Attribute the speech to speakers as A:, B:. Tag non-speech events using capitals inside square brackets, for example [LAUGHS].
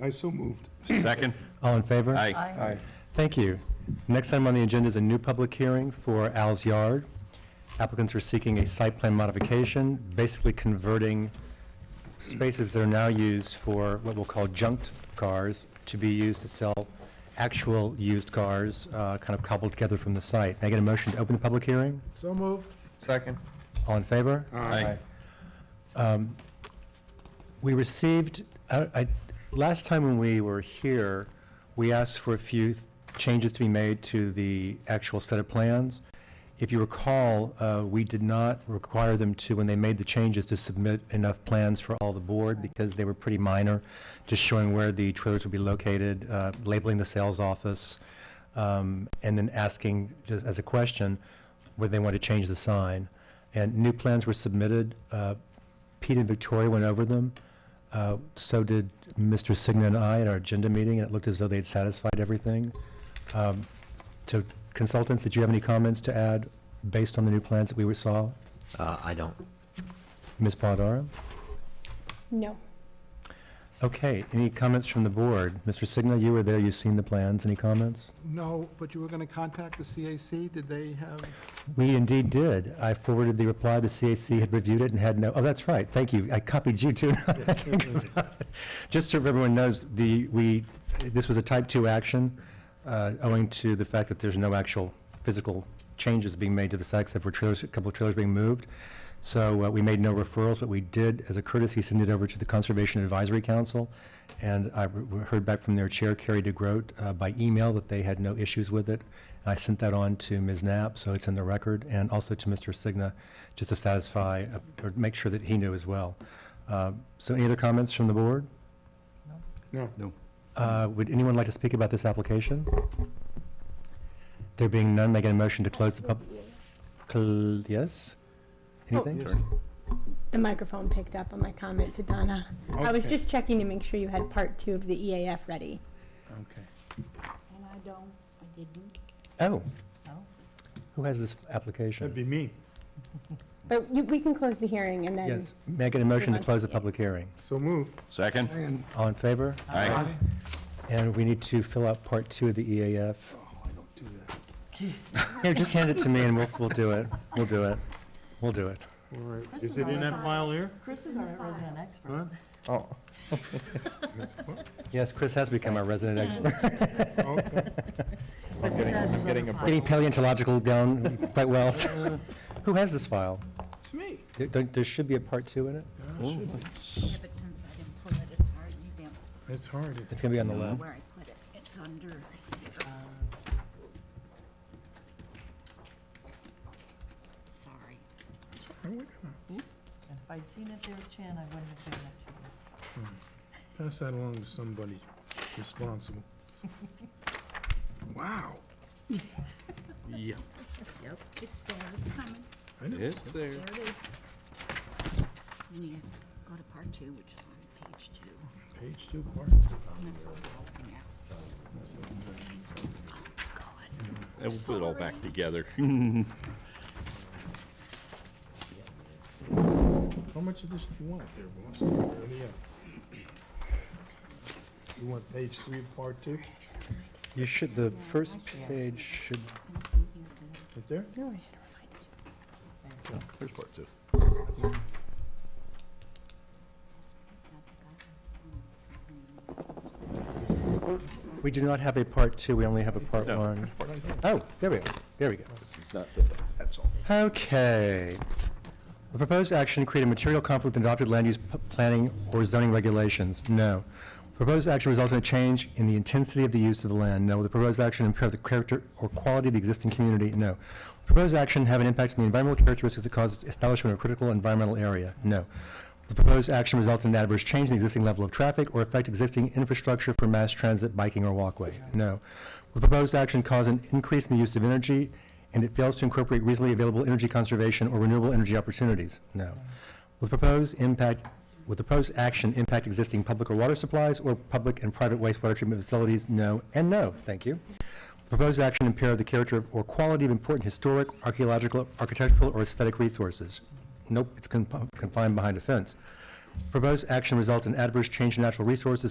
A: I so moved.
B: Second?
C: All in favor?
B: Aye.
A: Aye.
C: Thank you. Next item on the agenda is a new public hearing for Al's Yard. Applicants are seeking a site plan modification, basically converting spaces that are now used for what we'll call junked cars to be used to sell actual used cars, uh, kind of cobbled together from the site. May I get a motion to open the public hearing?
A: So moved.
B: Second?
C: All in favor?
B: Aye.
C: We received, I, I- last time when we were here, we asked for a few changes to be made to the actual set of plans. If you recall, uh, we did not require them to, when they made the changes, to submit enough plans for all the board because they were pretty minor, just showing where the trailers would be located, uh, labeling the sales office, um, and then asking, just as a question, whether they want to change the sign. And new plans were submitted. uh, Pete and Victoria went over them. Uh, So did Mr. Signa and I at our agenda meeting, and it looked as though they'd satisfied everything. Um, To consultants, did you have any comments to add based on the new plans that we were- saw?
D: Uh, I don't.
C: Ms. Paladara?
E: No.
C: Okay, any comments from the board? Mr. Signa, you were there, you've seen the plans, any comments?
A: No, but you were going to contact the CAC, did they have?
C: We indeed did. I forwarded the reply, the CAC had reviewed it and had no, oh, that's right, thank you, I copied you too. [LAUGHS] now that I think about it. Just so everyone knows, the, we, this was a type-two action, uh, owing to the fact that there's no actual physical changes being made to the site, except for trailers, a couple of trailers being moved. So uh, we made no referrals, but we did, as a courtesy, send it over to the Conservation Advisory Council, and I re- re- heard back from their chair, Carrie DeGroat, uh, by email that they had no issues with it. And I sent that on to Ms. Knapp, so it's in the record, and also to Mr. Signa, just to satisfy, uh, or make sure that he knew as well. Uh, So any other comments from the board?
A: No.
D: No.
C: Uh, Would anyone like to speak about this application? There being none, make a motion to close the pub, cl- yes? Anything?
E: The microphone picked up on my comment to Donna. I was
A: Okay.
E: just checking to make sure you had part two of the EAF ready.
A: Okay.
F: And I don't, I didn't.
C: Oh.
F: No.
C: Who has this application?
A: That'd be me.
E: But you, we can close the hearing and then,
C: Yes, may I get a motion to
E: on.
C: close the public hearing?
A: So moved.
B: Second?
A: And
C: All in favor?
B: Aye.
C: And we need to fill out part two of the EAF. [LAUGHS] Here, just hand it to me and we'll, we'll do it. We'll do it. We'll do it.
A: All right.
F: Chris
A: Is
F: is
A: it
F: on
A: in
F: the
A: that
F: side.
A: file here?
F: Chris is our resident expert.
A: Huh?
B: Oh.
C: Yes, Chris has become our resident expert. [LAUGHS]
A: Okay.
F: But he says it's
B: getting
F: on
B: a
F: the
C: Getting
F: file.
C: paleontological down quite well. Who has this file?
A: It's me.
C: There, don't- there should be a part two in it.
F: Yeah, but since I didn't put it, it's hard, you don't
A: It's hard.
C: It's gonna be on the
F: know
C: left.
F: where I put it. It's under um, here. Sorry.
G: And if I'd seen it there, Chan, I wouldn't have given it to you.
A: Pass that along to somebody responsible. Wow.
B: Yeah.
F: Yep. It's there, it's coming.
A: I know.
B: It's there.
F: There it is. And you go to part two, which is on page two.
A: Page two, part.
F: And that's all broken out. Oh,
B: And we'll put it all back together. [LAUGHS]
A: How much of this do you want there, boss? What do you have? You want page three, of part two?
C: You should, the first page should,
A: Right there?
E: no, I should have reminded you.
B: Here's part two.
C: we do not have a part two, we only have a part
B: No.
C: one. Oh, there we go, there we go.
B: It's not filled out, that's all.
C: Okay. The proposed action create a material conflict with adopted land use p- planning or zoning regulations? No. Proposed action results in a change in the intensity of the use of the land? No. The proposed action impair the character or quality of the existing community? No. Proposed action have an impact on the environmental characteristics that cause establishment of a critical environmental area? No. The proposed action result in an adverse change in the existing level of traffic or affect existing infrastructure for mass transit, biking, or walkway? No. Will the proposed action cause an increase in the use of energy and it fails to incorporate reasonably available energy conservation or renewable energy opportunities? No. Will the proposed impact, will the proposed action impact existing public or water supplies or public and private wastewater treatment facilities? No, and no, thank you. Proposed action impair the character or quality of important historic, archaeological, architectural, or aesthetic resources? Nope, it's confi- confined behind a fence. Proposed action result in adverse change in natural resources,